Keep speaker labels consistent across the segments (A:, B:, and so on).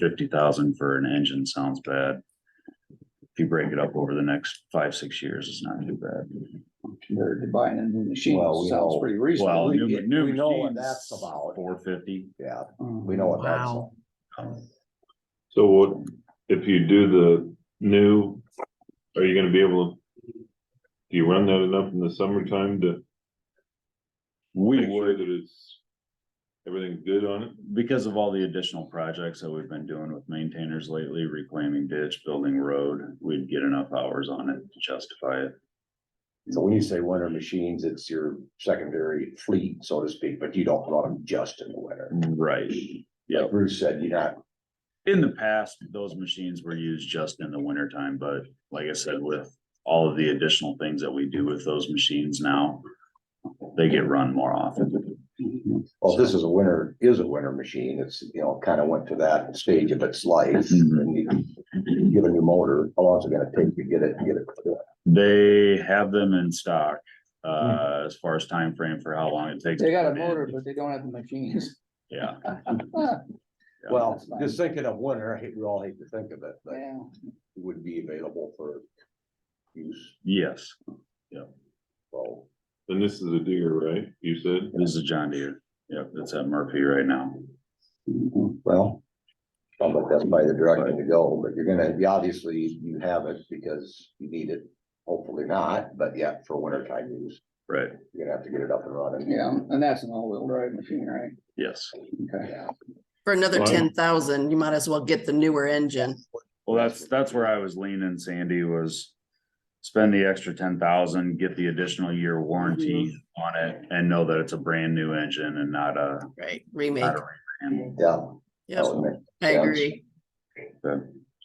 A: fifty thousand for an engine sounds bad. If you break it up over the next five, six years, it's not too bad.
B: compared to buying a new machine,
C: Well, we
B: sounds
C: know-
B: pretty reasonable.
A: Well, new,
C: get-
A: new
C: we know what
A: machines,
C: that's about.
A: Four fifty.
C: Yeah,
B: Mm-hmm.
C: we know what that's.
D: Wow.
E: So what, if you do the new, are you gonna be able to? Do you run that enough in the summertime to
A: We
E: make sure
A: would,
E: that it's, everything's good on it?
A: because of all the additional projects that we've been doing with maintainers lately, reclaiming ditch, building road, we'd get enough hours on it to justify it.
C: So when you say winter machines, it's your secondary fleet, so to speak, but you don't run them just in the winter.
A: Right. Yeah.
C: Like Bruce said, you're not,
A: In the past, those machines were used just in the wintertime, but like I said, with all of the additional things that we do with those machines now. They get run more often.
C: well, this is a winter, is a winter machine. It's, you know, kind of went to that stage of its life. And you get a new motor, how long's it gonna take to get it, get it?
A: They have them in stock, uh, as far as time frame for how long it takes.
B: They got
A: to
B: a
A: put in.
B: motor, but they don't have the machines.
A: Yeah, Yeah.
C: Well, just thinking of winter, I hate, we all hate to think of it, but it
B: Yeah,
C: would be available for use,
A: yes,
C: so.
E: And this is a digger, right? You said?
A: this is a John Deere, yep, it's at Murphy right now.
C: Well. I think that's probably the direction to go, but you're gonna, you obviously, you have it because you need it, hopefully not, but yeah, for wintertime use,
A: Right,
C: you're gonna have to get it up and running.
B: yeah, and that's an all-wheel drive machine, right?
A: yes.
B: Okay.
C: Yeah.
D: For another
E: Wow.
D: ten thousand, you might as well get the newer engine.
A: Well, that's, that's where I was leaning, Sandy, was spend the extra ten thousand, get the additional year warranty on it and know that it's a brand new engine and not a,
D: Right. Remake.
A: not a rebrand.
C: Yeah.
D: Yep,
C: that would make-
D: I
C: Oh, yeah.
D: agree.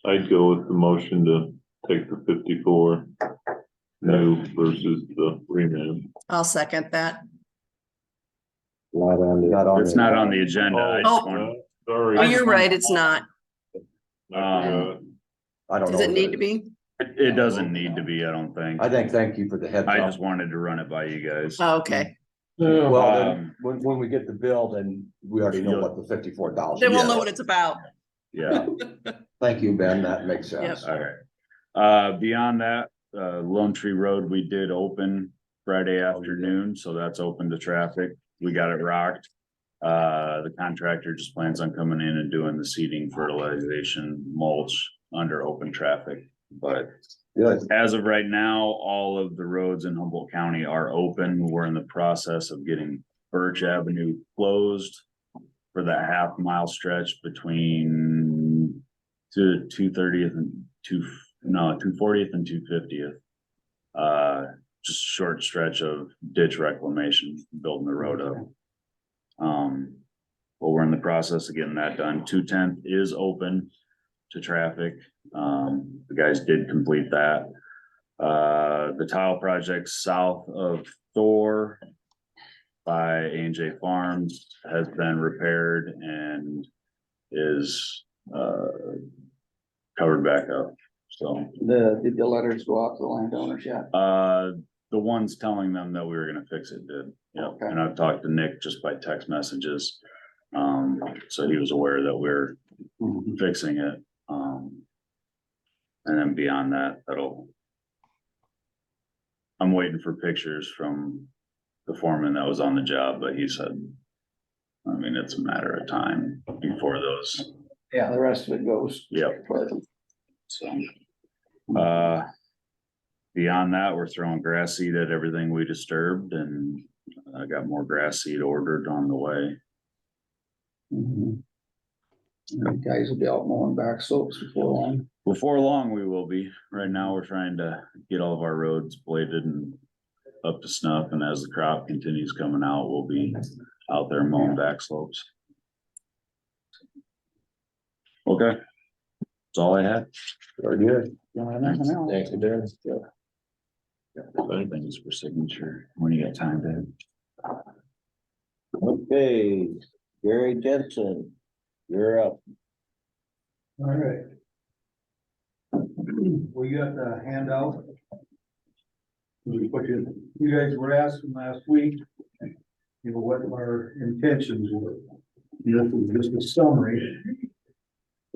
E: I'd go with the motion to take the fifty-four new versus the reman.
D: I'll second that.
C: Not on. Not on.
A: It's not on the agenda. I just wanted-
E: Sorry.
D: Oh, you're right, it's not.
E: I forgot.
C: I don't know.
D: Does it need to be?
A: It it doesn't need to be, I don't think.
C: I think, thank you for the heads
A: I just
C: up.
A: wanted to run it by you guys.
D: Oh, Okay,
C: Well, then,
A: Um,
C: when, when we get the bill, then we already know what the fifty-four thousand.
D: then we'll know what it's about.
A: Yeah,
C: Thank you, Ben, that makes sense.
A: all right. Uh, beyond that, uh, Lone Tree Road, we did open Friday afternoon, so that's open to traffic. We got it rocked. Uh, the contractor just plans on coming in and doing the seeding, fertilization, mulch under open traffic. But
C: Good,
A: as of right now, all of the roads in Humboldt County are open. We're in the process of getting Birch Avenue closed for that half mile stretch between to two thirtieth and two, no, two fortieth and two fiftieth. Uh, just short stretch of ditch reclamation, building the road up. Um, but we're in the process of getting that done. Two tenth is open to traffic. Um, the guys did complete that. Uh, the tile project south of Thor by A and J Farms has been repaired and is, uh, covered back up. So,
B: The, did the letters go out to the landowners yet?
A: uh, the ones telling them that we were gonna fix it did. Yep,
B: Okay.
A: and I've talked to Nick just by text messages. Um, so he was aware that we're fixing it, um. And then beyond that, that'll. I'm waiting for pictures from the foreman that was on the job, but he said. I mean, it's a matter of time before those,
B: Yeah, the rest of it goes.
A: Yep.
B: But
A: so. Uh. Beyond that, we're throwing grass seed at everything we disturbed and I got more grass seed ordered on the way.
B: Mhm. The Guys will be out mowing back slopes before long.
A: Before long, we will be. Right now, we're trying to get all of our roads bladed and up to snuff, and as the crop continues coming out, we'll be out there mowing back slopes. Okay, that's all I had.
C: very good.
B: You don't have nothing else?
C: you, Ben.
A: Things for signature, when you got time, Dave.
F: Okay, Gary Jensen, you're up.
G: All right. We got the handout. We put you, you guys were asking last week, you know, what our intentions were. This is just a summary